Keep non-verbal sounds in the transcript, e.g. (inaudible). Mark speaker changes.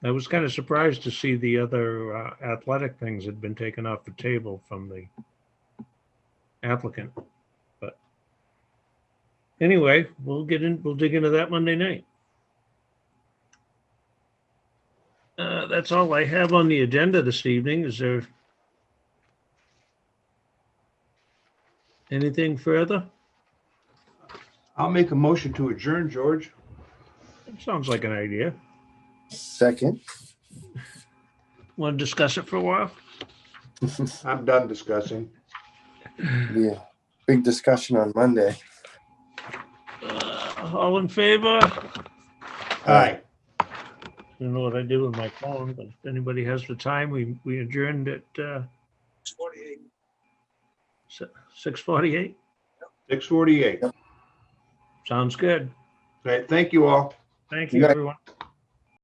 Speaker 1: I was kind of surprised to see the other uh, athletic things had been taken off the table from the applicant, but anyway, we'll get in, we'll dig into that Monday night. Uh, That's all I have on the agenda this evening. Is there anything further?
Speaker 2: I'll make a motion to adjourn, George.
Speaker 1: Sounds like an idea.
Speaker 3: Second. (laughs)
Speaker 1: Want to discuss it for a while?
Speaker 2: I'm done discussing.
Speaker 3: Yeah. Big discussion on Monday.
Speaker 1: Uh, All in favor?
Speaker 2: Aye.
Speaker 1: don't know what I did with my phone, but if anybody has the time, we, we adjourned at, uh, six forty-eight.
Speaker 2: Six forty-eight. All
Speaker 1: Sounds good.
Speaker 2: right, thank you all.
Speaker 1: Thank
Speaker 3: You
Speaker 1: you,
Speaker 3: got-
Speaker 1: everyone.